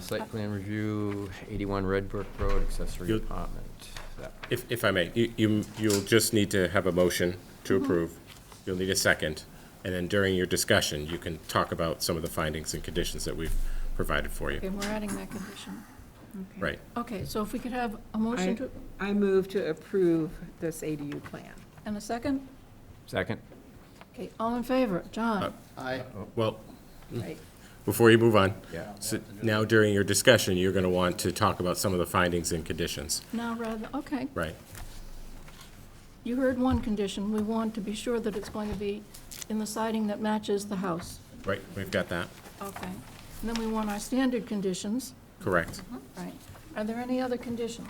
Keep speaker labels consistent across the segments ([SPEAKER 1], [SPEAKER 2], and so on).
[SPEAKER 1] Site plan review, 81 Red Brook Road, accessory
[SPEAKER 2] You-
[SPEAKER 1] apartment. That-
[SPEAKER 2] If, if I may, you- you, you'll just need to have a motion to approve. You'll need a second, and then during your discussion, you can talk about some of the findings and conditions that we've provided for you.
[SPEAKER 3] Okay, we're adding that condition.
[SPEAKER 4] Okay.
[SPEAKER 2] Right.
[SPEAKER 3] Okay, so if we could have a motion to,
[SPEAKER 4] I move to approve this ADU plan.
[SPEAKER 3] and a second?
[SPEAKER 1] Second?
[SPEAKER 3] Okay, all in favor? John?
[SPEAKER 5] Aye.
[SPEAKER 2] Well,
[SPEAKER 4] Right.
[SPEAKER 2] before you move on.
[SPEAKER 1] Yeah.
[SPEAKER 2] so Now, during your discussion, you're going to want to talk about some of the findings and conditions,
[SPEAKER 3] Now, rather, okay.
[SPEAKER 2] right?
[SPEAKER 3] You heard one condition. We want to be sure that it's going to be in the siding that matches the house.
[SPEAKER 2] Right, we've got that,
[SPEAKER 3] Okay. And then we want our standard conditions,
[SPEAKER 2] correct.
[SPEAKER 3] right? Are there any other conditions?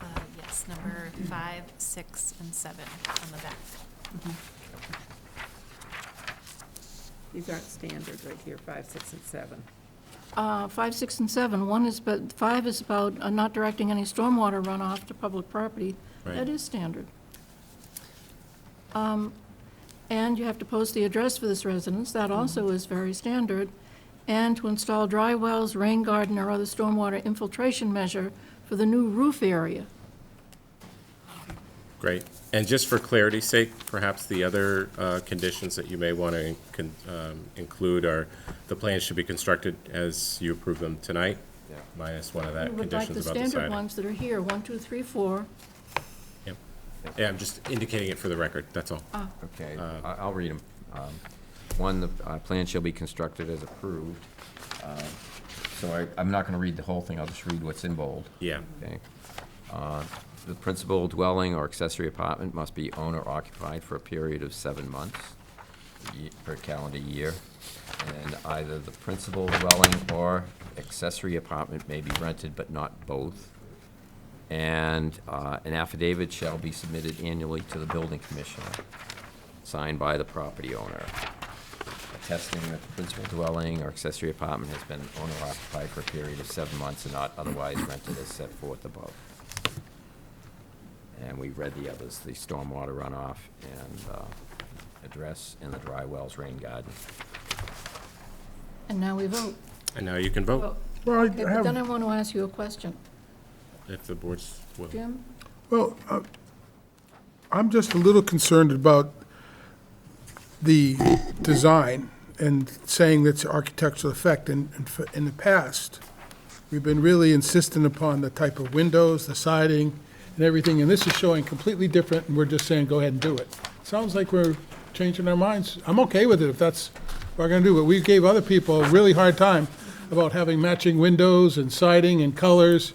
[SPEAKER 6] Uh, Yes, number five, six, and seven on the back.
[SPEAKER 4] These aren't standard right here, five, six, and seven.
[SPEAKER 3] Uh, Five, six, and seven. One is, but five is about uh, not directing any stormwater runoff to public property.
[SPEAKER 2] Right.
[SPEAKER 3] That is standard. Um, And you have to post the address for this residence. That
[SPEAKER 2] Mm-hmm.
[SPEAKER 3] also is very standard. And to install dry wells, rain garden, or other stormwater infiltration measure for the new roof area.
[SPEAKER 2] Great. And just for clarity's sake, perhaps the other uh, conditions that you may want to um, include are, the plans should be constructed as you approve them tonight,
[SPEAKER 1] Yeah.
[SPEAKER 2] minus one of
[SPEAKER 3] We
[SPEAKER 2] that,
[SPEAKER 3] would like the
[SPEAKER 2] conditions about the
[SPEAKER 3] standard
[SPEAKER 2] siding.
[SPEAKER 3] ones that are here, one, two, three, four.
[SPEAKER 2] Yep. Yeah, I'm just indicating it for the record, that's all.
[SPEAKER 3] Ah.
[SPEAKER 1] Okay, I- I'll read them. One, the uh, plan shall be constructed as approved. Uh, So I, I'm not going to read the whole thing, I'll just read what's in bold.
[SPEAKER 2] Yeah,
[SPEAKER 1] Okay. Uh, The principal dwelling or accessory apartment must be owner occupied for a period of seven months ye- per calendar year. And either the principal dwelling or accessory apartment may be rented, but not both. And uh, an affidavit shall be submitted annually to the building commissioner, signed by the property owner, attesting that the principal dwelling or accessory apartment has been owner occupied for a period of seven months and not otherwise rented as set forth above. And we read the others, the stormwater runoff and uh, address and the dry wells rain garden.
[SPEAKER 3] And now we vote.
[SPEAKER 2] and now you can vote,
[SPEAKER 3] Vote.
[SPEAKER 7] Well, I
[SPEAKER 3] Okay, But then I
[SPEAKER 7] have,
[SPEAKER 3] want to ask you a question.
[SPEAKER 2] if the board's willing.
[SPEAKER 3] Jim?
[SPEAKER 7] well, uh, I'm just a little concerned about the design and saying that's architectural effect. In, in f- in the past, we've been really insistent upon the type of windows, the siding, and everything, and this is showing completely different, and we're just saying, go ahead and do it. Sounds like we're changing our minds. I'm okay with it if that's what we're gonna do, but we gave other people a really hard time about having matching windows and siding and colors.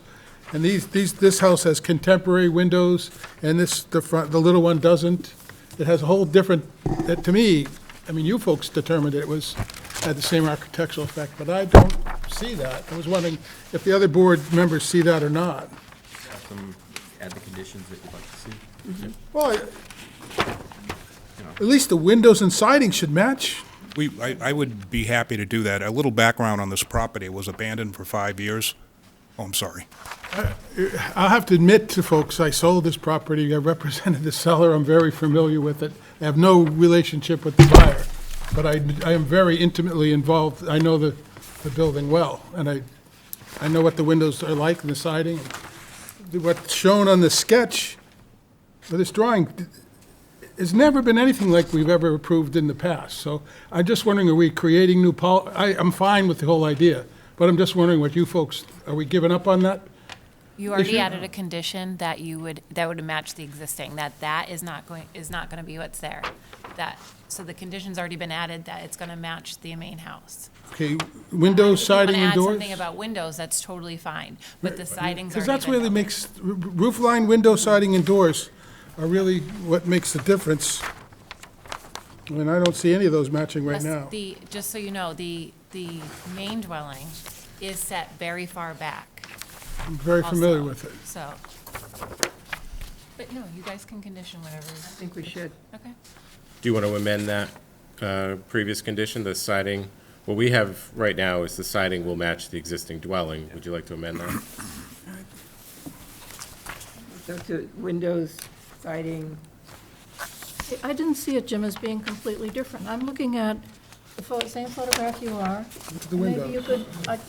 [SPEAKER 7] And these, these, this house has contemporary windows, and this, the front, the little one doesn't. It has a whole different, that to me, I mean, you folks determined it was, had the same architectural effect, but I don't see that. I was wondering if the other board members see that or not.
[SPEAKER 1] Add the conditions that you'd like to see.
[SPEAKER 7] Well, I- at least the windows and siding should match.
[SPEAKER 8] We, I, I would be happy to do that. A little background on this property, it was abandoned for five years. Oh, I'm sorry.
[SPEAKER 7] I'll have to admit to folks, I sold this property, I represented the seller, I'm very familiar with it. I have no relationship with the buyer, but I, I am very intimately involved, I know the, the building well, and I, I know what the windows are like and the siding. What's shown on the sketch, or this drawing, it's never been anything like we've ever approved in the past, so I'm just wondering, are we creating new pol, I, I'm fine with the whole idea, but I'm just wondering what you folks, are we giving up on that?
[SPEAKER 6] You
[SPEAKER 7] If
[SPEAKER 6] already
[SPEAKER 7] you-
[SPEAKER 6] added a condition that you would, that would match the existing, that that is not going, is not going to be what's there. That, so the condition's already been added that it's going to match the main house.
[SPEAKER 7] Okay, windows, siding, and
[SPEAKER 6] If Um, you want
[SPEAKER 7] doors?
[SPEAKER 6] to add something about windows, that's totally fine, but the siding's already
[SPEAKER 7] Because that's
[SPEAKER 6] been
[SPEAKER 7] really
[SPEAKER 6] built.
[SPEAKER 7] makes, r- roof line, window siding, and doors are really what makes the difference. I mean, I don't see any of those matching right
[SPEAKER 6] Plus,
[SPEAKER 7] now.
[SPEAKER 6] The, just so you know, the, the main dwelling is set very far back.
[SPEAKER 7] I'm very familiar
[SPEAKER 6] also,
[SPEAKER 7] with it.
[SPEAKER 6] So. But no, you guys can condition whatever,
[SPEAKER 4] I think we should.
[SPEAKER 6] okay?
[SPEAKER 2] Do you want to amend that uh, previous condition, the siding? What we have right now is the siding will match the existing dwelling. Would you like to amend that?
[SPEAKER 4] So to windows, siding,
[SPEAKER 3] I- I didn't see it, Jim, as being completely different. I'm looking at the pho- same photograph you are.
[SPEAKER 7] the
[SPEAKER 3] Maybe you could, I-